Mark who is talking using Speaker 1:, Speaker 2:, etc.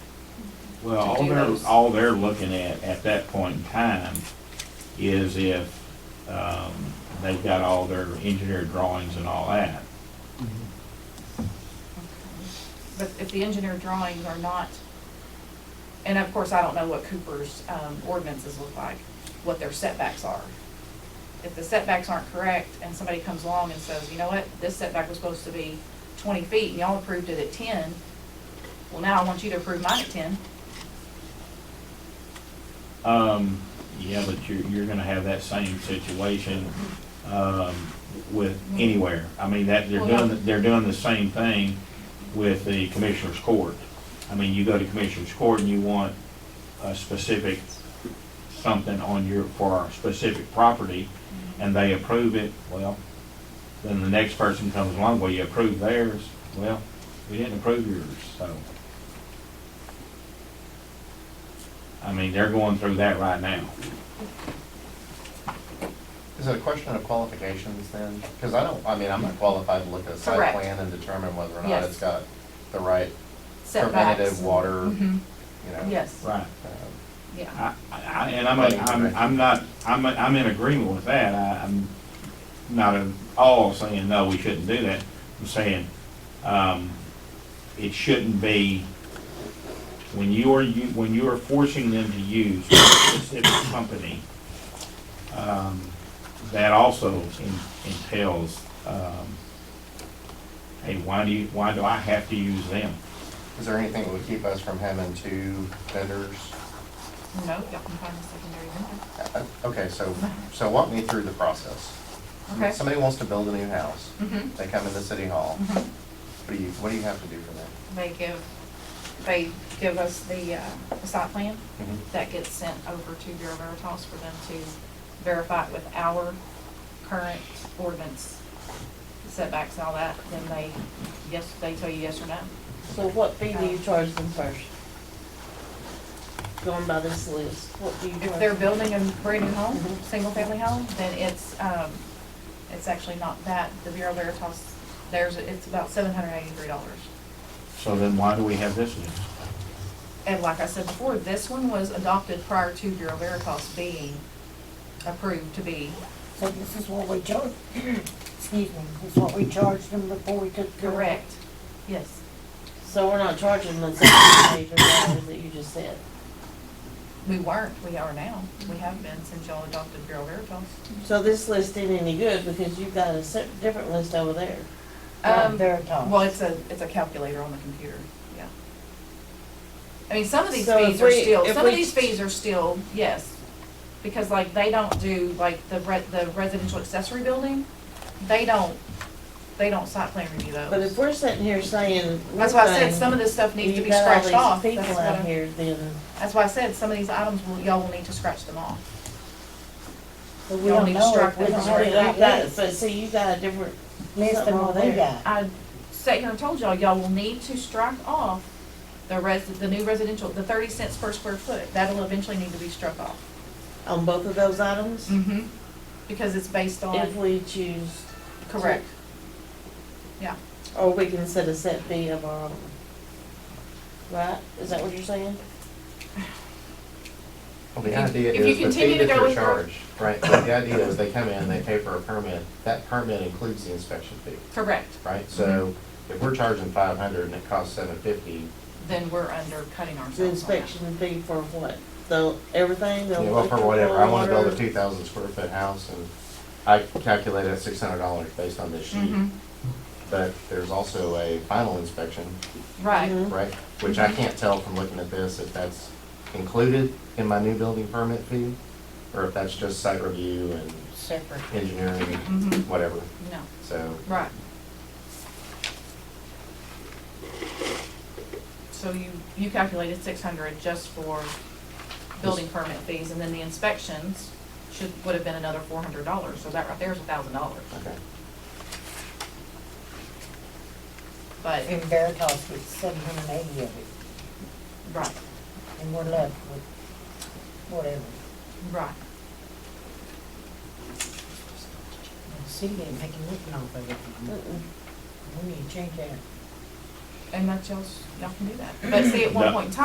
Speaker 1: Well,
Speaker 2: to
Speaker 1: all
Speaker 2: do
Speaker 1: they're,
Speaker 2: those.
Speaker 1: all they're looking at, at that point in time, is if, um, they've got all their engineer drawings and all that.
Speaker 2: But if the engineer drawings are not, and of course, I don't know what Cooper's um, ordinances look like, what their setbacks are. If the setbacks aren't correct and somebody comes along and says, you know what, this setback was supposed to be twenty feet and y'all approved it at ten, well, now I want you to approve mine at ten.
Speaker 1: Um, yeah, but you're, you're gonna have that same situation, um, with anywhere. I mean, that, they're
Speaker 2: Well, yeah.
Speaker 1: doing, they're doing the same thing with the commissioner's court. I mean, you go to commissioner's court and you want a specific, something on your, for a specific property, and they approve it, well, then the next person comes along, well, you approve theirs, well, we didn't approve yours, so. I mean, they're going through that right now.
Speaker 3: Is it a question of qualifications then? Because I don't, I mean, I'm not qualified to look at a site
Speaker 2: Correct.
Speaker 3: plan and determine whether or not
Speaker 2: Yes.
Speaker 3: it's got the right
Speaker 2: Setbacks.
Speaker 3: preventative water, you
Speaker 2: Mhm.
Speaker 3: know.
Speaker 2: Yes,
Speaker 1: Right.
Speaker 3: um,
Speaker 2: yeah.
Speaker 1: I, I, and I'm, I'm, I'm not, I'm, I'm in agreement with that, I, I'm not at all saying, no, we shouldn't do that. I'm saying, um, it shouldn't be, when you are, you, when you are forcing them to use a specific company, um, that also en- entails, um, hey, why do you, why do I have to use them?
Speaker 3: Is there anything that would keep us from having two vendors?
Speaker 2: No, y'all can find the secondary vendor.
Speaker 3: Uh, uh, Okay, so, so walk me through the process.
Speaker 2: Okay.
Speaker 3: Somebody wants to build a new house.
Speaker 2: Mhm.
Speaker 3: They come into City Hall.
Speaker 2: Mhm.
Speaker 3: What do you, what do you have to do for them?
Speaker 2: They give, they give us the uh, site plan
Speaker 3: Mm-hmm.
Speaker 2: that gets sent over to Bureau Veritas for them to verify it with our current ordinance setbacks and all that, then they, yes, they tell you yes or no.
Speaker 4: So what fee do you charge them first? Going by this list, what do you charge?
Speaker 2: If they're
Speaker 4: them?
Speaker 2: building a brand new home, single-family home, then it's, um, it's actually not that, the Bureau Veritas, there's, it's about seven hundred eighty-three dollars.
Speaker 1: So then why do we have this list?
Speaker 2: And like I said before, this one was adopted prior to Bureau Veritas being approved to be
Speaker 5: So this is what we charged, excuse me, this is what we charged them before we took. the-
Speaker 2: correct. Yes.
Speaker 4: So we're not charging them seventy-eight dollars that you just said?
Speaker 2: We weren't, we are now. We have been since y'all adopted Bureau Veritas.
Speaker 4: So this list ain't any good because you've got a se- different list over there.
Speaker 5: Not
Speaker 2: Um,
Speaker 5: Veritas.
Speaker 2: Well, it's a, it's a calculator on the computer, yeah. I mean, some of these
Speaker 4: So if
Speaker 2: fees are
Speaker 4: we-
Speaker 2: still,
Speaker 4: if
Speaker 2: some of
Speaker 4: we-
Speaker 2: these fees are still, yes. Because like, they don't do, like, the re- the residential accessory building, they don't, they don't site plan review those.
Speaker 4: But if we're sitting here saying.
Speaker 2: That's why I said some of this stuff needs to be scratched off.
Speaker 4: You've got all these
Speaker 2: That's
Speaker 4: people
Speaker 2: what
Speaker 4: out
Speaker 2: I'm-
Speaker 4: here then,
Speaker 2: That's why I said, some of these items, will- y'all will need to scratch them off.
Speaker 5: But we
Speaker 2: y'all
Speaker 5: don't
Speaker 2: need to
Speaker 5: know
Speaker 2: strike
Speaker 5: if we
Speaker 2: that
Speaker 5: don't
Speaker 2: from
Speaker 5: have
Speaker 2: our
Speaker 5: that
Speaker 4: you've got,
Speaker 5: list,
Speaker 4: but see, you've got a different,
Speaker 5: list
Speaker 4: something
Speaker 5: than what
Speaker 4: over
Speaker 5: we
Speaker 4: there.
Speaker 5: got.
Speaker 2: I sat here and told y'all, y'all will need to strike off the res, the new residential, the thirty cents per square foot, that'll eventually need to be struck off.
Speaker 4: on both of those items,
Speaker 2: Mm-hmm. Because it's based
Speaker 4: if
Speaker 2: on,
Speaker 4: we choose,
Speaker 2: correct,
Speaker 4: or we can set a set fee of our own. Right? Is that what you're saying?
Speaker 3: Well, the
Speaker 2: If you-
Speaker 3: idea
Speaker 2: if you
Speaker 3: is the
Speaker 2: continue
Speaker 3: fee
Speaker 2: to
Speaker 3: that
Speaker 2: go
Speaker 3: you're
Speaker 2: with your-
Speaker 3: charged, right, but the idea is they come in, they pay for a permit, that permit includes the inspection fee,
Speaker 2: correct,
Speaker 3: right? So if we're charging five hundred and it costs seven fifty,
Speaker 2: then we're undercutting ourselves
Speaker 4: The
Speaker 2: on that.
Speaker 4: inspection fee for what? The, everything, the
Speaker 3: you know, for
Speaker 4: electrical,
Speaker 3: whatever, I wanna build a
Speaker 4: water?
Speaker 3: two thousand square foot house and I calculate at six hundred dollars based on this sheet.
Speaker 2: Mhm.
Speaker 3: But there's also a final inspection,
Speaker 2: Right,
Speaker 4: Mhm.
Speaker 3: right, which I can't tell from looking at this if that's included in my new building permit fee or if that's just site review and
Speaker 5: Separate.
Speaker 3: engineering,
Speaker 2: Mhm.
Speaker 3: whatever,
Speaker 2: no,
Speaker 3: so.
Speaker 2: right. So you, you calculated six hundred just for building permit fees, and then the inspections should, would have been another four hundred dollars, so that right there is a thousand dollars.
Speaker 3: Okay.
Speaker 2: But,
Speaker 5: In Veritas with seven hundred and eighty of it,
Speaker 2: right,
Speaker 5: and we're left with whatever.
Speaker 2: right.
Speaker 5: See, they ain't making nothing off of it.
Speaker 4: Mm-mm.
Speaker 5: We need to change that.
Speaker 2: And that's y'all's, y'all can do that. But see, at one
Speaker 1: No.
Speaker 2: point in time,